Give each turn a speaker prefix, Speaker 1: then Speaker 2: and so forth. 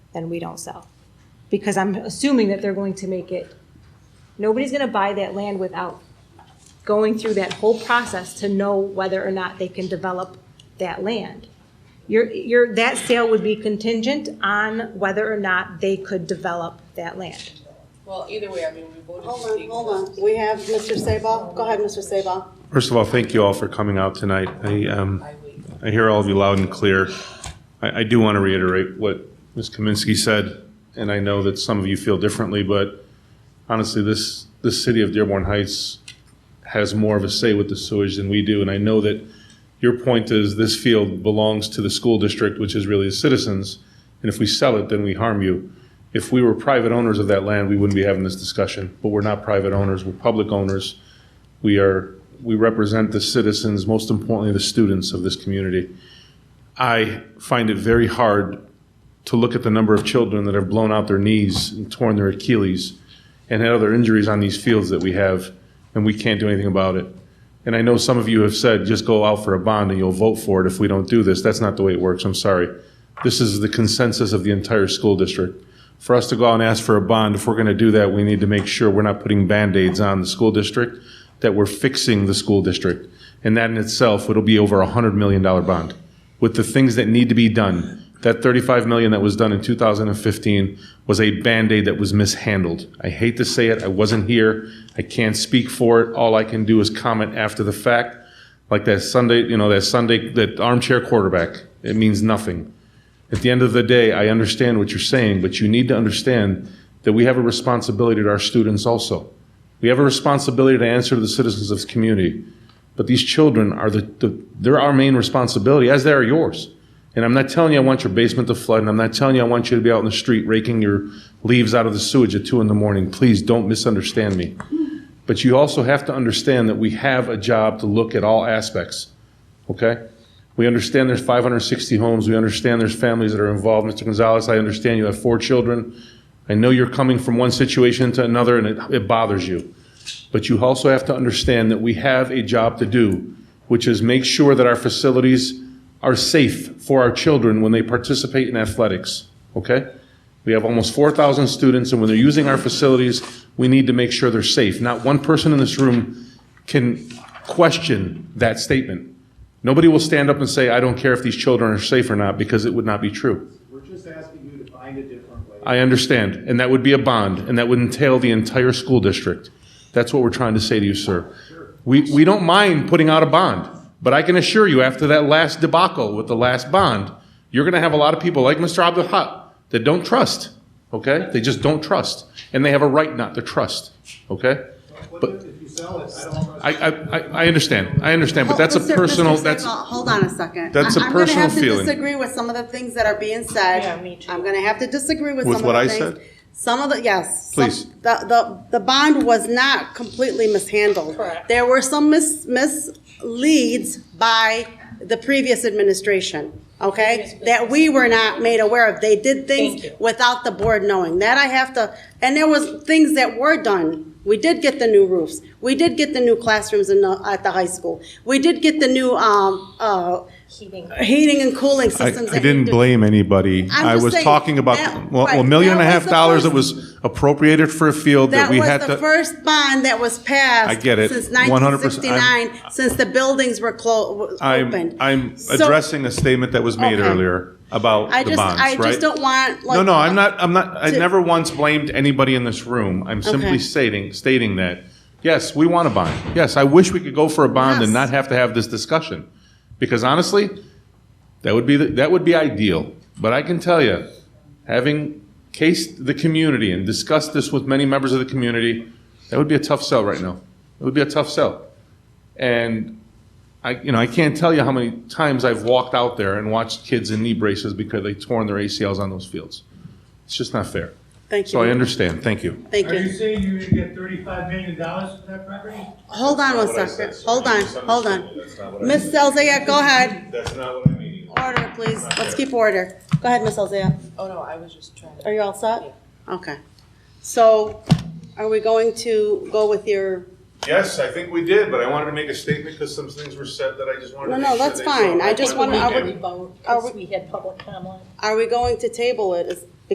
Speaker 1: then we don't sell. Because I'm assuming that they're going to make it, nobody's gonna buy that land without going through that whole process to know whether or not they can develop that land. Your, your, that sale would be contingent on whether or not they could develop that land.
Speaker 2: Well, either way, I mean, we voted.
Speaker 3: Hold
Speaker 2: to
Speaker 3: on,
Speaker 2: take
Speaker 3: hold on. We have Mr. Sabal. Go ahead, Mr. Sabal.
Speaker 4: First of all, thank you all for coming out tonight. I, um, I hear all of you loud and clear. I, I do want to reiterate what Ms. Kaminsky said, and I know that some of you feel differently, but honestly, this, this city of Dearborn Heights has more of a say with the sewage than we do, and I know that your point is this field belongs to the school district, which is really the citizens, and if we sell it, then we harm you. If we were private owners of that land, we wouldn't be having this discussion, but we're not private owners, we're public owners. We are, we represent the citizens, most importantly, the students of this community. I find it very hard to look at the number of children that have blown out their knees and torn their Achilles and had other injuries on these fields that we have, and we can't do anything about it. And I know some of you have said, just go out for a bond and you'll vote for it if we don't do this. That's not the way it works, I'm sorry. This is the consensus of the entire school district. For us to go out and ask for a bond, if we're gonna do that, we need to make sure we're not putting Band-Aids on the school district, that we're fixing the school district. And that in itself, it'll be over a hundred million dollar bond with the things that need to be done. That 35 million that was done in 2015 was a band-aid that was mishandled. I hate to say it, I wasn't here. I can't speak for it. All I can do is comment after the fact. Like that Sunday, you know, that Sunday, that armchair quarterback, it means nothing. At the end of the day, I understand what you're saying, but you need to understand that we have a responsibility to our students also. We have a responsibility to answer to the citizens of this community. But these children are the, the they're our main responsibility, as they are yours. And I'm not telling you I want your basement to flood, and I'm not telling you I want you to be out in the street raking your leaves out of the sewage at two in the morning. Please don't misunderstand me. But you also have to understand that we have a job to look at all aspects. Okay? We understand there's 560 homes. We understand there's families that are involved. Mr. Gonzalez, I understand you have four children. I know you're coming from one situation to another, and it, it bothers you. But you also have to understand that we have a job to do, which is make sure that our facilities are safe for our children when they participate in athletics, okay? We have almost 4,000 students, and when they're using our facilities, we need to make sure they're safe. Not one person in this room can question that statement. Nobody will stand up and say, I don't care if these children are safe or not, because it would not be true.
Speaker 5: We're just asking you to find a different way.
Speaker 4: I understand, and that would be a bond, and that would entail the entire school district. That's what we're trying to say to you, sir. We, we don't mind putting out a bond, but I can assure you, after that last debacle with the last bond, you're gonna have a lot of people like Mr. Abdul Haq that don't trust, okay? They just don't trust, and they have a right not to trust, okay?
Speaker 5: What
Speaker 4: But
Speaker 5: if if you sell it, I don't trust
Speaker 4: I, I, I I understand, I understand, but that's a
Speaker 3: Hold- Mr.
Speaker 4: personal,
Speaker 3: Mr.
Speaker 4: that's,
Speaker 3: Sabal, Hold on a second.
Speaker 4: that's a
Speaker 3: I-
Speaker 4: personal
Speaker 3: I'm gonna have
Speaker 4: feeling.
Speaker 3: to disagree with some of the things that are being said.
Speaker 2: Yeah, me too.
Speaker 3: I'm gonna have to disagree with some
Speaker 4: With
Speaker 3: of
Speaker 4: what
Speaker 3: the
Speaker 4: I
Speaker 3: things.
Speaker 4: said?
Speaker 3: Some of the, yes. some-
Speaker 4: Please.
Speaker 3: The, the, the bond was not completely mishandled.
Speaker 2: Correct.
Speaker 3: There were some mis, misleads by the previous administration, okay? That we were not made aware of. They did things
Speaker 2: Thank you.
Speaker 3: without the board knowing. That I have to, and there was things that were done. We did get the new roofs. We did get the new classrooms in the, at the high school. We did get the new, um, uh, heating and cooling
Speaker 4: I,
Speaker 3: systems. that
Speaker 4: I
Speaker 3: we
Speaker 4: didn't
Speaker 3: did.
Speaker 4: blame anybody.
Speaker 3: I'm
Speaker 4: I
Speaker 3: just
Speaker 4: was
Speaker 3: saying,
Speaker 4: talking
Speaker 3: that-
Speaker 4: about, well, a
Speaker 3: right,
Speaker 4: million and a
Speaker 3: that
Speaker 4: half
Speaker 3: was the
Speaker 4: dollars that
Speaker 3: first-
Speaker 4: was appropriated for a field that
Speaker 3: That
Speaker 4: we
Speaker 3: was
Speaker 4: had
Speaker 3: the
Speaker 4: to.
Speaker 3: first bond that was passed.
Speaker 4: I get it.
Speaker 3: Since
Speaker 4: 100%. I'm-
Speaker 3: 1969, since the buildings were closed,
Speaker 4: I'm,
Speaker 3: opened.
Speaker 4: I'm
Speaker 3: So,
Speaker 4: addressing a statement that was made
Speaker 3: Okay.
Speaker 4: earlier about
Speaker 3: I
Speaker 4: the
Speaker 3: just, I
Speaker 4: bonds,
Speaker 3: just
Speaker 4: right?
Speaker 3: don't want, like.
Speaker 4: No, no, I'm not, I'm not, I
Speaker 3: to-
Speaker 4: never once blamed anybody in this room. I'm simply
Speaker 3: Okay.
Speaker 4: stating, stating that, yes, we want a bond. Yes, I wish we could go for a bond and
Speaker 3: Yes.
Speaker 4: not have to have this discussion. Because honestly, that would be, the- that would be ideal. But I can tell you, having cased the community and discussed this with many members of the community, that would be a tough sell right now. It would be a tough sell. And I, you know, I can't tell you how many times I've walked out there and watched kids in knee braces because they torn their ACLs on those fields. It's just not fair.
Speaker 3: Thank
Speaker 4: So I
Speaker 3: you,
Speaker 4: understand. Thank you.
Speaker 3: thank
Speaker 6: Are you
Speaker 3: you.
Speaker 6: saying you're gonna get thirty-five million dollars for that property?
Speaker 3: Hold on
Speaker 4: That's not what I
Speaker 3: one second,
Speaker 4: said, sir.
Speaker 3: hold on,
Speaker 4: You
Speaker 3: hold
Speaker 4: misunderstood me. That's not
Speaker 3: on.
Speaker 4: what I
Speaker 3: Ms. Elzaya, go ahead,
Speaker 4: That's not what I mean.
Speaker 3: order, please, let's keep order. Go ahead, Ms. Elzaya,
Speaker 2: Oh, no, I was just trying to.
Speaker 3: are you all set? Okay, so are we going to go with your,
Speaker 4: Yes, I think we did, but I wanted to make a statement because some things were said that I just wanted
Speaker 3: No,
Speaker 4: to
Speaker 3: no,
Speaker 4: make sure
Speaker 3: that's
Speaker 4: they
Speaker 3: fine.
Speaker 4: saw.
Speaker 3: I just
Speaker 4: wanted
Speaker 3: wanna-
Speaker 4: to
Speaker 3: I
Speaker 4: make
Speaker 3: would-
Speaker 4: it.
Speaker 3: Are we-
Speaker 7: because we had public comment.
Speaker 3: are we going to table it? Is-